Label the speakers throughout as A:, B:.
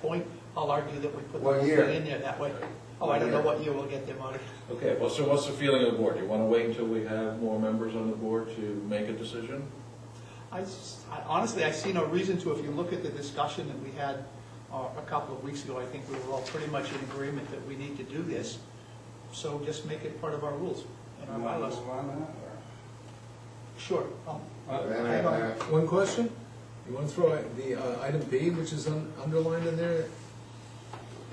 A: point, I'll argue that we put the
B: What
A: whole
B: year?
A: thing in there that way. Oh, I don't know what year we'll get the money.
C: Okay, well, so what's the feeling of the board? Do you want to wait until we have more members on the board to make a decision?
A: I s- I- honestly, I see no reason to, if you look at the discussion that we had uh, a couple of weeks ago, I think we were all pretty much in agreement that we need to do this, so just make it part of our rules and our
B: You wanna
A: bylaws.
B: move on now,
A: Sure. um,
B: or-
A: I-
B: Then I- I-
D: One question? You want to throw out the uh, item B, which is un- underlined in there?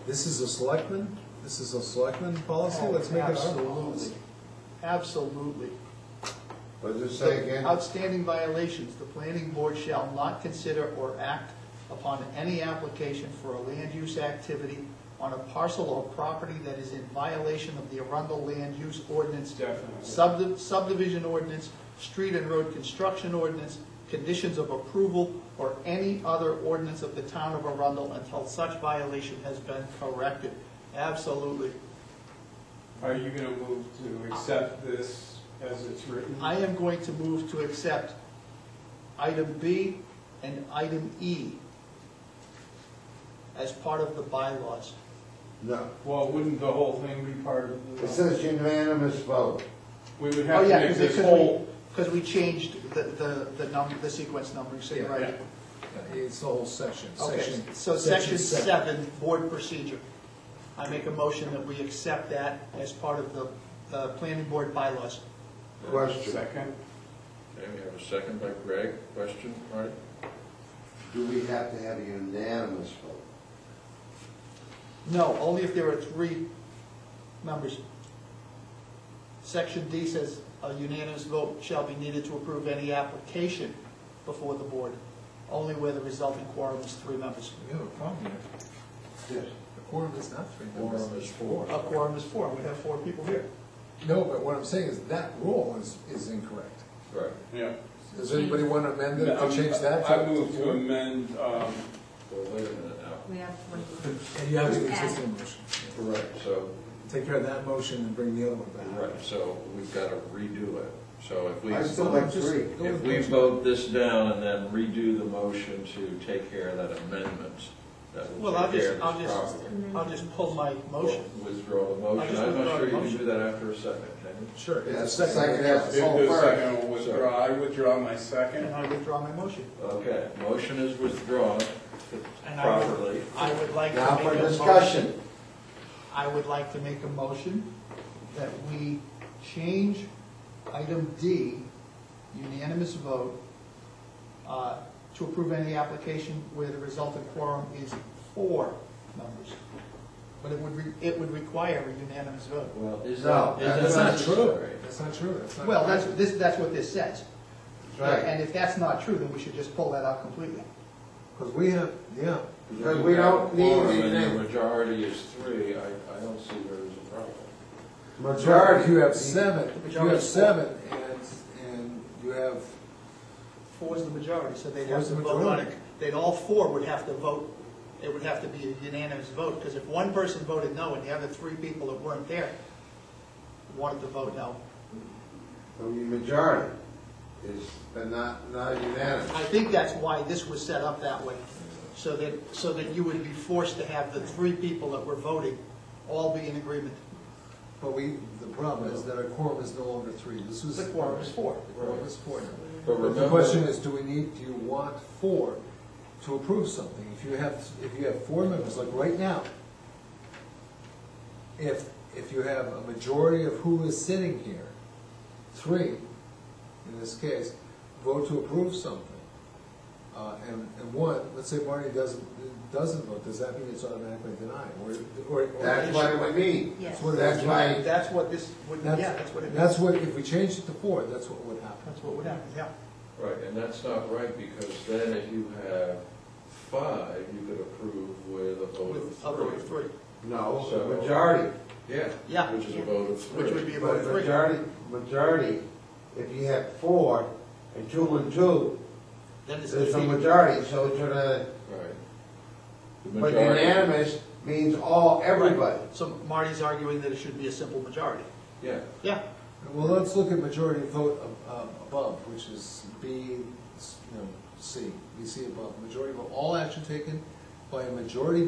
D: This is a selectman, this is a selectman policy,
A: Oh,
D: let's make it our
A: absolutely.
D: policy.
A: Absolutely.
B: What's it say again?
A: Outstanding violations, the planning board shall not consider or act upon any application for a land use activity on a parcel or property that is in violation of the Arundel land use ordinance.
B: Definitely.
A: subdi- Subdivision ordinance, street and road construction ordinance, conditions of approval, or any other ordinance of the town of Arundel until such violation has been corrected. Absolutely.
E: Are you gonna move to accept this as it's written?
A: I am going to move to accept item B and item E as part of the bylaws.
B: No,
E: Well, wouldn't the whole thing be part of the?
B: it says unanimous vote.
E: We would
A: Oh
E: have to
A: yeah,
E: make
A: because
E: this whole,
A: Because we changed the, the, the number, the sequence numbering, so you're
D: Yeah,
A: right.
D: It's the whole section,
A: Okay,
D: section.
A: so section seven, board procedure. I make a motion that we accept that as part of the, uh planning board bylaws.
B: Question,
E: second,
C: Okay, we have a second by Greg. Question, Marty?
B: do we have to have a unanimous vote?
A: No, only if there are three members. Section D says a unanimous vote shall be needed to approve any application before the board, only where the resulting quorum is three members.
D: We have a problem here.
B: Yes.
D: The quorum is not three members.
C: Quorum is four.
A: A quorum is four, we have four people here.
D: No, but what I'm saying is that rule is, is incorrect.
C: Right.
E: yeah.
D: Does anybody want to amend it,
E: I'm-
D: to change that? to-
E: I move to amend, um,
C: Well, wait a minute now.
F: We have one.
D: And you have the existing motion.
C: Right, so,
D: Take care of that motion and bring the other one back.
C: right, so we've got to redo it. So if we,
B: I still like three.
C: if we vote this down and then redo the motion to take care of that amendment, that will
A: Well, I'll
C: take
A: just-
C: care of
A: I'll
C: this
A: just-
C: problem.
A: I'll just pull my motion.
C: Withdraw the
A: I'll
C: motion.
A: just
C: I'm
A: withdraw
C: not sure
A: the
C: you can
A: motion.
C: do that after a second, can you?
D: Sure. it's a
B: Yes, second half.
E: do
B: Oh,
E: the
B: first.
E: second I'll withdraw, I withdraw my
A: And
E: second.
A: I withdraw my motion.
C: Okay, motion is withdrawn
A: And I would-
C: properly.
A: I would like to
B: Now
A: make a
B: for
A: motion-
B: discussion.
A: I would like to make a motion that we change item D, unanimous vote, uh, to approve any application where the resulting quorum is four members. But it would, re- it would require a unanimous vote.
C: Well, is
B: No,
C: that,
B: that's
C: is
D: That's
C: that
D: not
C: true?
D: true. That's not true. That's not.
A: Well, that's, this, that's what this says.
B: That's right.
A: And if that's not true, then we should just pull that out completely.
D: Because we have, yeah.
B: Because we don't need
C: Quorum and the
B: anything.
C: majority is three, I, I don't see where there's a problem.
D: If you have
B: seven.
D: seven, if you have seven, and, and you have,
A: Four's the majority, so they'd have
D: Four's
A: to
D: the
A: vote on it.
D: majority.
A: They'd, all four would have to vote, it would have to be a unanimous vote, because if one person voted no and the other three people that weren't there wanted to vote no,
B: The majority is, but not, not unanimous.
A: I think that's why this was set up that way, so that, so that you would be forced to have the three people that were voting all be in agreement.
D: but we, the problem is that our quorum is no longer three. This was.
A: The quorum is four.
D: The quorum is four. now.
C: But
D: But the
C: remember-
D: question is, do we need, do you want four to approve something? If you have, if you have four members, like right now, if, if you have a majority of who is sitting here, three, in this case, vote to approve something, uh, and, and one, let's say Marty doesn't, doesn't vote, does that mean it's automatically denied? Or, or- or-
B: That's what we need.
F: Yes.
D: What-
B: That's why,
A: That's what this, would yeah,
D: That's-
A: that's what it,
D: That's
A: that's
D: what, if we changed it to four, that's what would happen.
A: what would happen, yeah.
C: Right, and that's not right, because then if you have five, you could approve with a vote
A: With a vote
C: of
A: of
C: three.
A: three,
B: no,
C: So-
B: majority.
C: Yeah.
A: Yeah.
C: Which is a vote of three.
A: which would be a vote
B: But
A: of three.
B: majority, majority, if you have four and two and two,
A: Then it's
B: there's a
A: defeated.
B: majority, so it's gonna,
C: Right. The
B: but
C: majority-
B: unanimous means all, everybody.
A: So Marty's arguing that it should be a simple majority.
C: Yeah,
A: Yeah,
D: Well, let's look at majority vote ab- um, above, which is B, you know, C, B, C above. Majority vote, all action taken by a majority